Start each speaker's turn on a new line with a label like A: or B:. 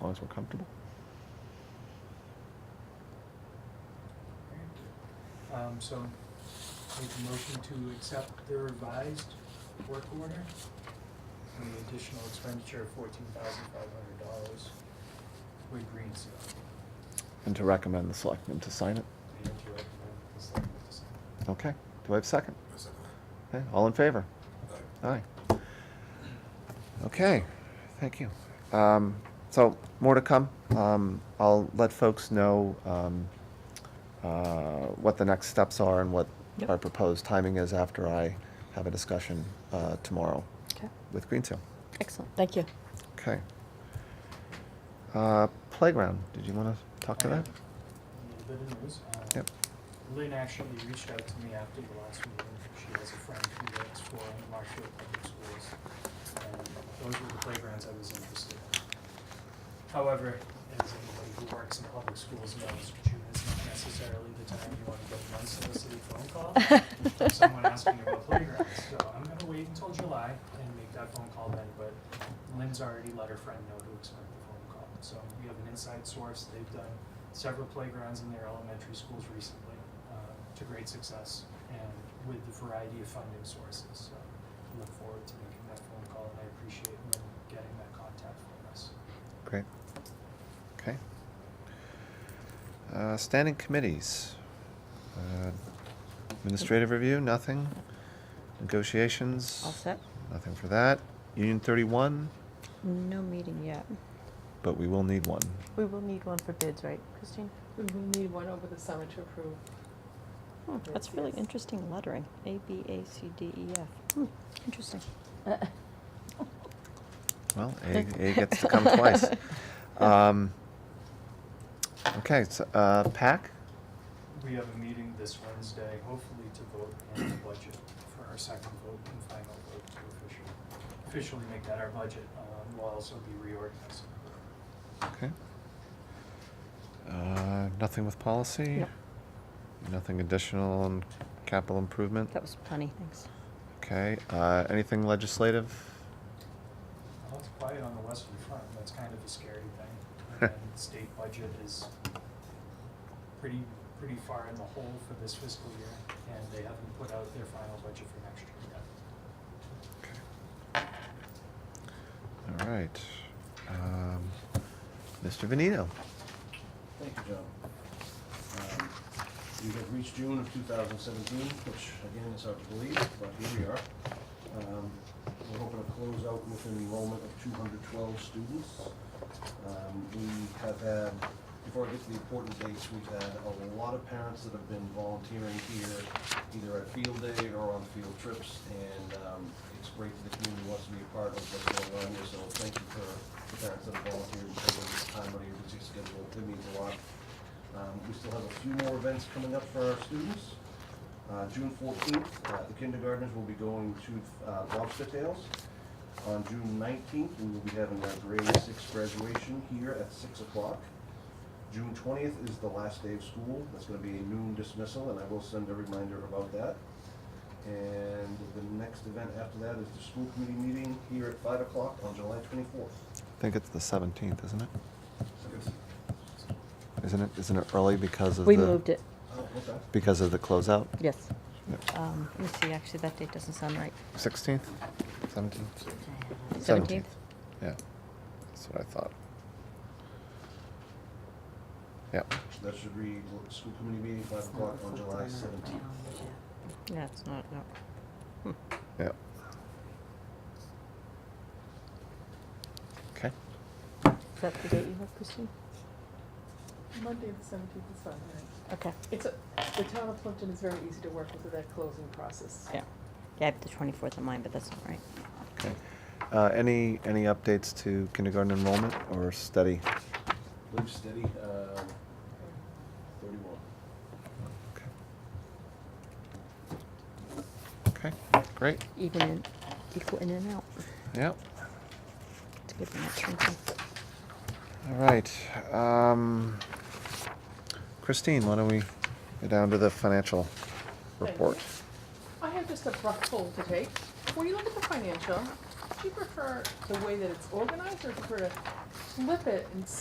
A: long as we're comfortable.
B: Um, so make a motion to accept the revised work order and the additional expenditure of fourteen thousand five hundred dollars with Green Seal.
A: And to recommend the selectmen to sign it.
B: And to recommend the selectmen to sign.
A: Okay, do I have a second?
C: I second
A: Okay, all in favor?
C: that. Aye.
A: Aye. Okay, thank you. Um, so, more to come. Um, I'll let folks know, um, uh, what the next steps are and what
D: Yep.
A: our proposed timing is after I have a discussion, uh, tomorrow
D: Okay,
A: with Greensill.
D: excellent, thank you.
A: Okay. Uh, playground, did you wanna talk to
B: I have
A: that?
B: A little bit of news. Um,
A: Yep.
B: Lynn actually reached out to me after the last meeting. She has a friend who works for Marshfield Public Schools. And those were the playgrounds I was interested in. However, as anybody who works in public schools knows, June is not necessarily the time you want to get an unsolicited phone call from someone asking about playgrounds. So I'm gonna wait until July and make that phone call then, but Lynn's already let her friend know to expect the phone call. So we have an inside source, they've done several playgrounds in their elementary schools recently, uh, to great success and with the variety of funding sources. So I look forward to making that phone call and I appreciate Lynn getting that contact from us.
A: Great. Okay. Uh, standing committees. Uh, Administrative review, nothing. Negotiations.
D: All set?
A: Nothing for that. Union thirty-one,
D: No meeting yet.
A: but we will need one.
E: We will need one for bids, right, Christine?
F: We will need one over the summer to approve.
D: Hmm, That's really interesting lettering, A, B, A, C, D, E, F. Hmm, interesting.
A: Well, A, A gets to come twice. Um, okay, so, uh, PAC?
B: We have a meeting this Wednesday, hopefully to vote on the budget for our second vote and final vote to officially, officially make that our budget. Um, We'll also be reorganizing.
A: Okay. Uh, nothing with policy?
D: Nope.
A: Nothing additional on capital improvement?
D: That was plenty, thanks.
A: Okay, uh, anything legislative?
B: Well, it's quiet on the western front, that's kind of a scary thing. And state budget is pretty, pretty far in the hole for this fiscal year, and they haven't put out their final budget for next year yet.
A: All right. Um, Mr. Venito?
G: Thank you, John. Um, We have reached June of 2017, which again is hard to believe, but here we are. Um, We're hoping to close out with an enrollment of 212 students. Um, We have had, before I get to the important dates, we've had a lot of parents that have been volunteering here, either at field day or on field trips, and um, it's great that the community wants to be a part of what's going on here, so thank you for the parents that have volunteered and taken this time out of your busy schedule. It means a lot. Um, We still have a few more events coming up for our students. Uh, June fourteenth, uh, the kindergartners will be going to, uh, Lobster Tales. On June nineteenth, we will be having our grade six graduation here at six o'clock. June twentieth is the last day of school. That's gonna be a noon dismissal, and I will send a reminder about that. And the next event after that is the school committee meeting here at five o'clock on July twenty-fourth.
A: I think it's the seventeenth, isn't it? Isn't it, isn't it early because of the?
D: We moved it,
G: Oh, okay.
A: Because of the closeout?
D: yes. Um, let me see, actually, that date doesn't sound right.
A: Sixteenth, seventeenth?
D: Seventeenth?
A: Yeah, that's what I thought. Yep,
G: That should read, l- school committee meeting, five o'clock on July seventeenth.
D: Yeah, it's not, no.
A: yep. Okay,
E: Is that the date you have, Christine?
F: Monday the seventeenth is fine, right?
D: Okay,
F: It's, a- the town of Plimpton is very easy to work with with that closing process.
D: yeah. Yeah, I have the twenty-fourth in mind, but that's not right.
A: okay. Uh, any, any updates to kindergarten enrollment or study?
G: Live steady, um, thirty-one.
A: Okay. Okay, great,
D: Even in, equal in and out.
A: yep,
D: It's good when that's shrinking.
A: all right. Um, Christine, why don't we go down to the financial
F: Thank
A: report?
F: you. I have just a rough poll to take. When you look at the financial, do you prefer the way that it's organized or prefer to flip it and